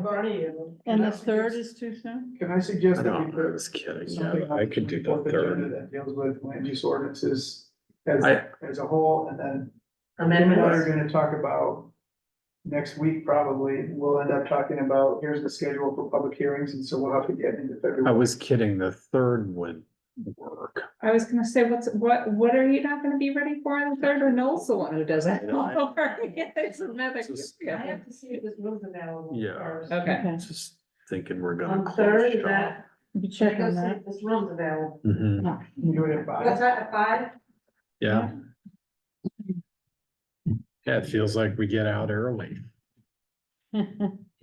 Bernie and them. And the third is too soon? Can I suggest I that we know, I put was kidding. something yeah. on I could do the the fourth agenda third. that deals with land use ordinances as, I- as a whole, and then We're amendments. gonna talk about next week probably, we'll end up talking about, here's the schedule for public hearings, and so we'll have to get into I February. was kidding. The third would work. I was gonna say, what's, what, what are you not gonna be ready for on the third or Noel's the one who does it? I know, I- It's another- Just- I yeah. have to see if this room's available. Yeah. first. Okay, Okay, Just thinking we're gonna. On close third, is shop. that, you check check on that. if this room's available. Mhm, You do it at What's five, that, at five? yeah. Yeah, it feels like we get out early. I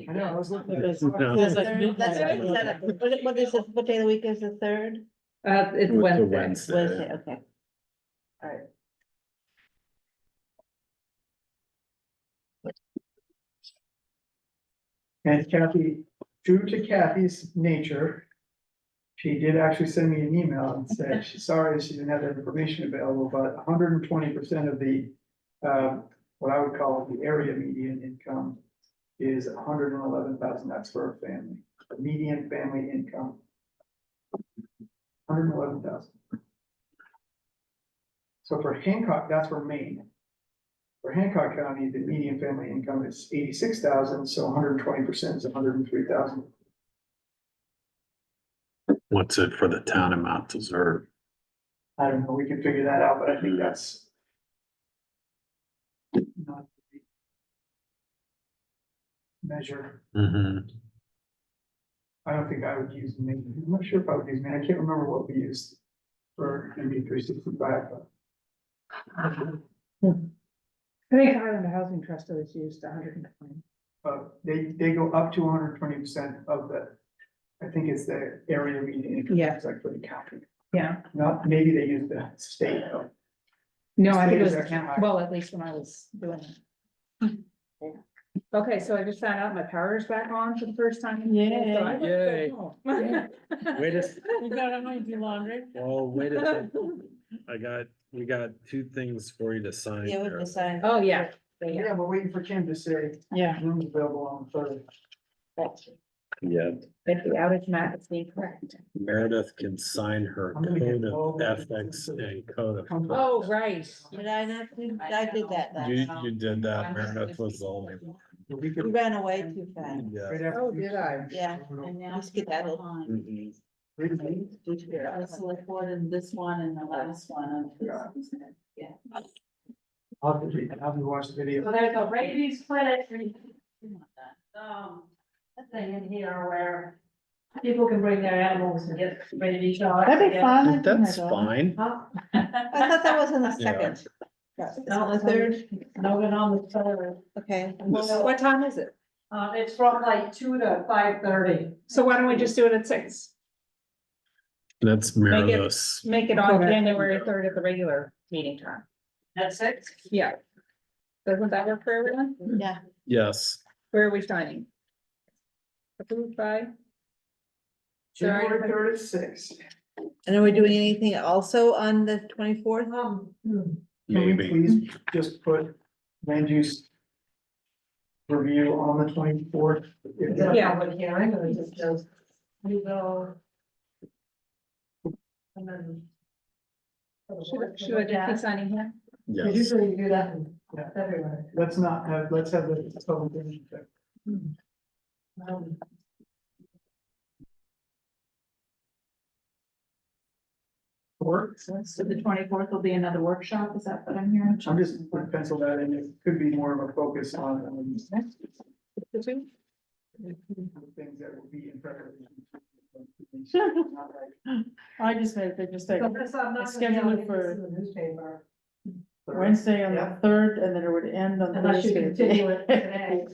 know, I was looking at Because- No. because That's at what midnight- I said. What, what is, it- what day of the week is the third? uh, it's With the Wednesday. Wednesday, okay. And Kathy, due to Kathy's nature, she did actually send me an email and said, she's sorry, she didn't have that information available, but hundred and twenty percent of the, um, what I would call the area median income is hundred and eleven thousand, that's for a family, the median family income. Hundred and eleven thousand. So for Hancock, that's for Maine. For Hancock County, the median family income is eighty-six thousand, so hundred and twenty percent is hundred and three thousand. What's it for the town of Mount Desert? I don't know, we can figure that out, but I think that's. not the Measure, Mhm. I don't think I would use, ma- I'm not sure if I would use, man, I can't remember what we used for MB three sixty-five. I think Island Housing Trust always used hundred and twenty. But they, they go up to hundred and twenty percent of the, I think it's the area median income, Yeah. it's like for the county, Yeah, not, maybe they use the state though. no, I think it State is was, actually yeah, higher. well, at least when I was doing it. Okay, so I just found out my power's back on for the first time. in years, so I went Yay. home. Wait a, s- You got it, might do laundry. oh, wait a second. I got, we got two things for you to sign. Yeah, here. we decided. Oh, yeah, Yeah, we're waiting for Kim to say, Yeah, room's available on the third. Yeah, if the outage map is being correct. Meredith can sign her I'm gonna get code of all of ethics this. and code of. Oh, right. Did I not, do- I did that last You, time. you did that, Meredith was the only. one. We You could- ran away too fast. Yeah. right after Oh, you- did I? Yeah. Really? Let's get that over. Mhm. I was like, what in this one and the last one? I'll have to read, I'll have to watch the video. So there's a rabies clinic, um, thing in here where people can bring their animals and get rabies shots. that'd be and- fun. I think That's I will. fine. Huh? I thought that was in the Yeah. second. That's No, on Oh, the third, No, we're on the third. okay. What time is it? Uh, it's from like two to five thirty. So why don't we just do it at six? That's it- Meredith's. Make it on January third at the regular meeting time. At six? Yeah. Doesn't that work for everyone? Yeah, Yes, Where are we signing? Approved by? Sorry. January third is six. and are we doing anything also on the twenty-fourth? Um, hmm. Can we maybe. please just put land use review on the twenty-fourth? is it a Yeah. public hearing or is it just, we go? And then. Should, should I just be signing here? Because Yes. Usually you do that in Yeah. February. Let's not have, let's have the public hearing. Um, Or, So the twenty-fourth will be another workshop, is that what I'm hearing? I'm just gonna pencil that in, it could be more of a focus on um, The two? things that will be in preparation. Not like I just made, they just like So this, I'm not gonna be schedule able it to get this for- in the newspaper Wednesday on the Yeah. third and then it would end on unless you Thursday. continue it today.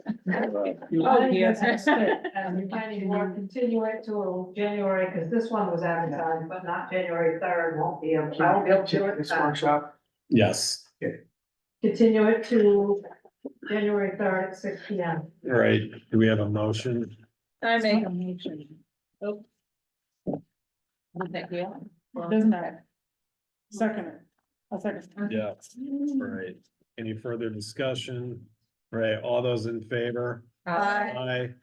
Oh, yes. And the planning board continue it till January, because this one was advertised, but not January third, won't be, able- I won't be able to do it. This uh, workshop, Yes, Continue it to January third at six P M. All right, do we have a motion? I make a motion. Oh. Thank you. Doesn't matter. Second. it. I'll second. Yeah. All right, any further discussion? All Right, all those in favor? Uh, Aye,